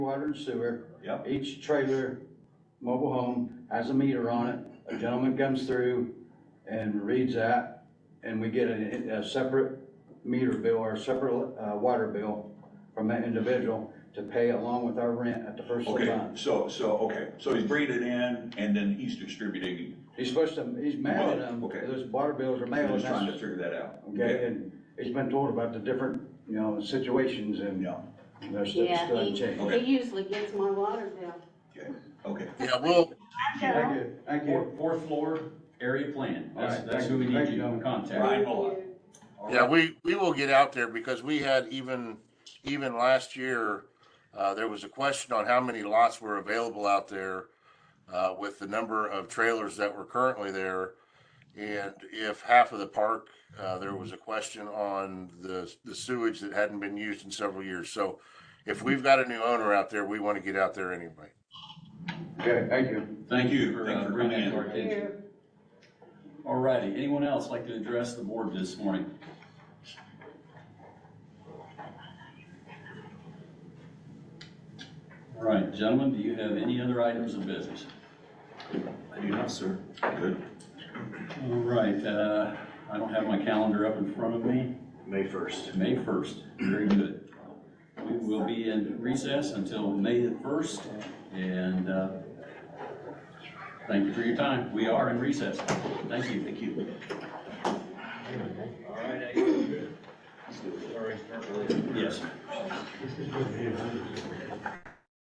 Water and sewer, Yep, each trailer, mobile home has a meter on it. A gentleman comes through and reads that, and we get a, a separate meter bill or a separate, uh, water bill from that individual to pay along with our rent at the first of the okay, month. so, so, okay, so he's bringing it in and then he's distributing, He's supposed to, he's mailing them, Okay. those water bills are I'm mailed, just trying to that's, figure that out. okay, and he's been told about the different, you know, situations and Yeah, they're still, still Yeah, he, in change. Okay. he usually gets my water bill. okay, Yeah, well, Thank you, thank you. Fourth, fourth floor area plan, All that's, right, that's thank who we you. need Thank you you, to Dominic. contact. Ryan Bullock. All yeah, right. we, we will get out there because we had even, even last year, uh, there was a question on how many lots were available out there uh, with the number of trailers that were currently there. And if half of the park, uh, there was a question on the, the sewage that hadn't been used in several years. So if we've got a new owner out there, we want to get out there anyway. Okay, thank you. Thank you for Thank you uh, for coming bringing that to our in. attention. All righty, anyone else like to address the board this morning? All right, gentlemen, do you have any other items of business? I do not, sir. Good. All right, uh, I don't have my calendar up in front of me, May first. May first, very good. We will be in recess until May the first, and, uh, thank you for your time, we are in recess, thank you. Thank you. All right, I feel good. All right, start with- Yes.